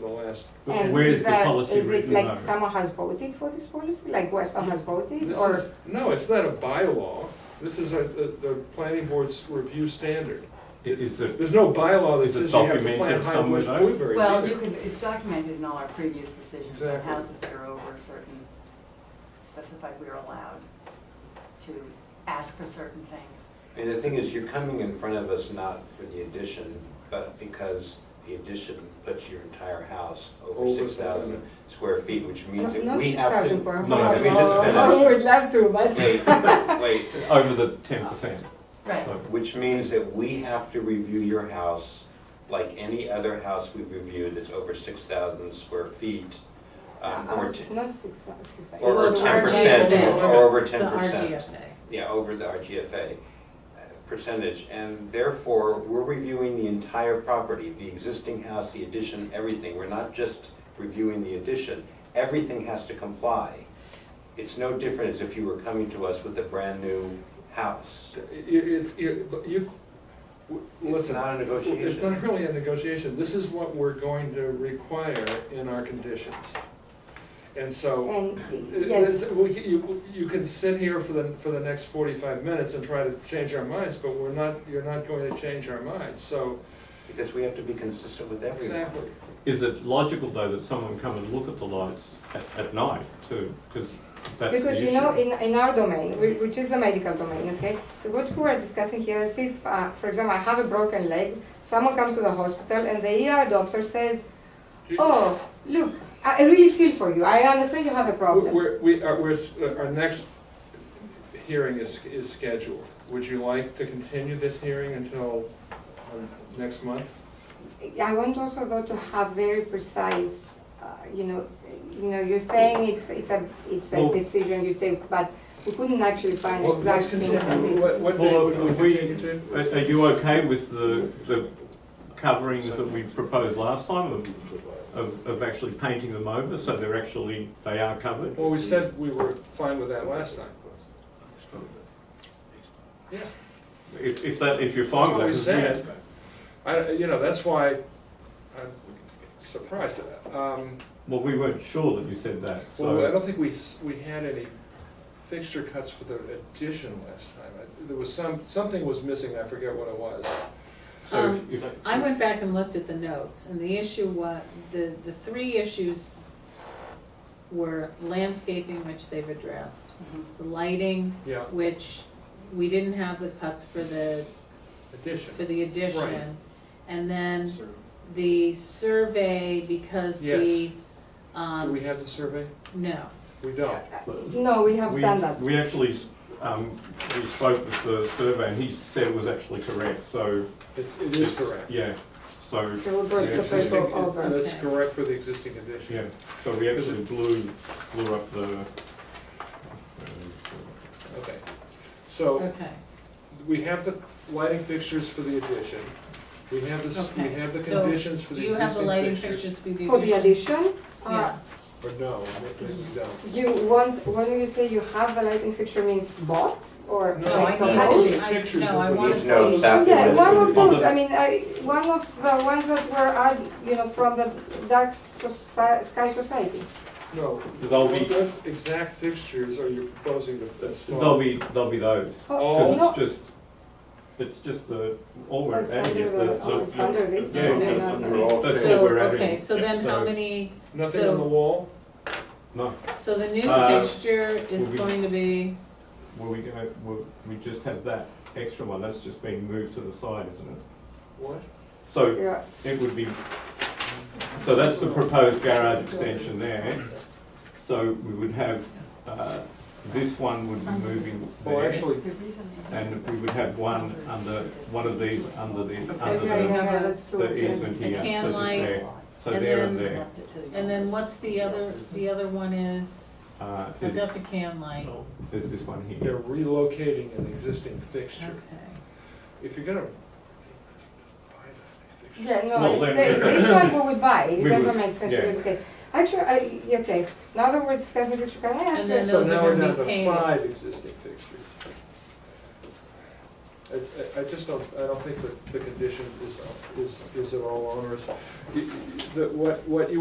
the last, And Where is is the that- policy is it written like under? someone has voted for this policy, like Weston has voted, this or is, uh, no, it's not a bylaw. This is a, the, the planning board's review standard. It is a, There's no bylaw that Is it says you have to plant documented high bush somewhere? blueberries Well, either. you can, it's documented in all our previous decisions on Exactly. houses that are over a certain, specified we're allowed to ask for certain things. And the thing is, you're coming in front of us not for the addition, but because the addition puts your entire house over Over six thousand square feet, which means not that we six have thousand to. square No, I mean, just Oh, finish. we would love to, but. Wait, wait, over the ten percent. Right, which means that we have to review your house like any other house we've reviewed that's over six thousand square feet. um, Uh, Or, uh, t- Not six, uh, six, like- or the ten percent, RGFA. or over It's the ten percent. RGFA. yeah, over the RGFA uh, percentage, and therefore, we're reviewing the entire property, the existing house, the addition, everything. We're not just reviewing the addition. Everything has to comply. It's no different as if you were coming to us with a brand-new house. It- It's, it- but you, w- It's listen, not a negotiation. it's not really a negotiation. This is what we're going to require in our conditions. And so. And, It- yes, it's- we- You, you can sit here for the, for the next forty-five minutes and try to change our minds, but we're not, you're not going to change our minds, so, Because we have to be consistent with everyone. exactly. Is it logical though that someone come and look at the lights at, at night too? Because that's the issue. because you know, in, in our domain, whi- which is the medical domain, okay? What we are discussing here is if, uh, for example, I have a broken leg, someone comes to the hospital and the ER doctor says, oh, look, I I really feel for you, I understand you have a problem. We're, we are, we're, s- uh, our next hearing is, is scheduled. Would you like to continue this hearing until um, next month? I want also though to have very precise, uh, you know, you know, you're saying it's, it's a, it's a Well- decision you take, but we couldn't actually find Well, exact let's things continue. on this. What, what day Well, would we we- continue to? Are are you okay with the, the coverings that we proposed last time of, of, of actually painting them over so they're actually, they are covered? Well, we said we were fine with that last time. Yes. If, if that, if you're That's fine what we with that. 'cause said. I, you know, that's why I'm surprised. Um, we- Well, we weren't sure that you said that, Well, I so. don't think we, s- we had any fixture cuts for the addition last time. I- There was some, something was missing, I forget what it was. so if- Um, if- I went back and looked at the notes, and the issue was, the, the three issues were landscaping, which they've addressed, Mm-hmm. the lighting, Yeah, which we didn't have the cuts for the, addition. for the Right. addition. And then the survey, because the, Yes. Do we um, have the survey? no, We don't. No, we have We- done that. We actually, s- um, we spoke with the surveyor and he said it was actually correct, so. It's, it is correct. Yeah, so, So we The brought the existing- proposal over. That's Okay. correct for the existing addition. yeah, so we actually blew, blew up the. uh, Okay. So okay. we have the lighting fixtures for the addition. We have the, s- we Okay, have the so conditions for Do the you have the existing lighting fixtures. fixtures for the For the addition? addition, uh, Or no, maybe we don't. you want, when you say you have a lighting fixture means bought or No, No, I like need to, proposed? proposed? I, Pictures no, I of We wanna need see. to know exactly Yeah, what's one gonna of be- those, I mean, I, one of the ones that were, add- you know, from the Dark Soci- Sky Society. No. They'll be- What exact fixtures are you proposing to uh, install? They'll be, they'll be those, Oh, Oh. because no, it's just, it's just the, all Oh, we're it's adding under is the, the. oh, it's under this. Yeah, and then it's under- under all. That's So, what we're adding. okay, so then how many, Nothing So- on the wall? No, so the new Uh, fixture is will we- going to be, well, we, gonna- well, we just have that extra one, that's just being moved to the side, isn't it? What? So Yeah, it would be, so that's the proposed garage extension there. So we would have, uh, this one would be moving Well, there, Oh, actually, the reason. and we would have one under, one of these under the, yeah, under yeah, the, yeah, that's true. the easement A here, can so just light, there, so and there and then- there. and then what's the other, the other one is, Uh, I got is, the can light, is this one here. they're relocating an existing okay. fixture. If you're gonna buy that fixture. Yeah, Well, no, it's then- the- it's this one we would buy, it We would, doesn't make sense yeah. to educate. Actually, I, yeah, okay, now that we're discussing future, can I ask And you? then So those are now we're gonna down be to painted. five existing fixtures. I, I- I just don't, I don't think that the condition is, is, is at all onerous. Y- y- The, what, what you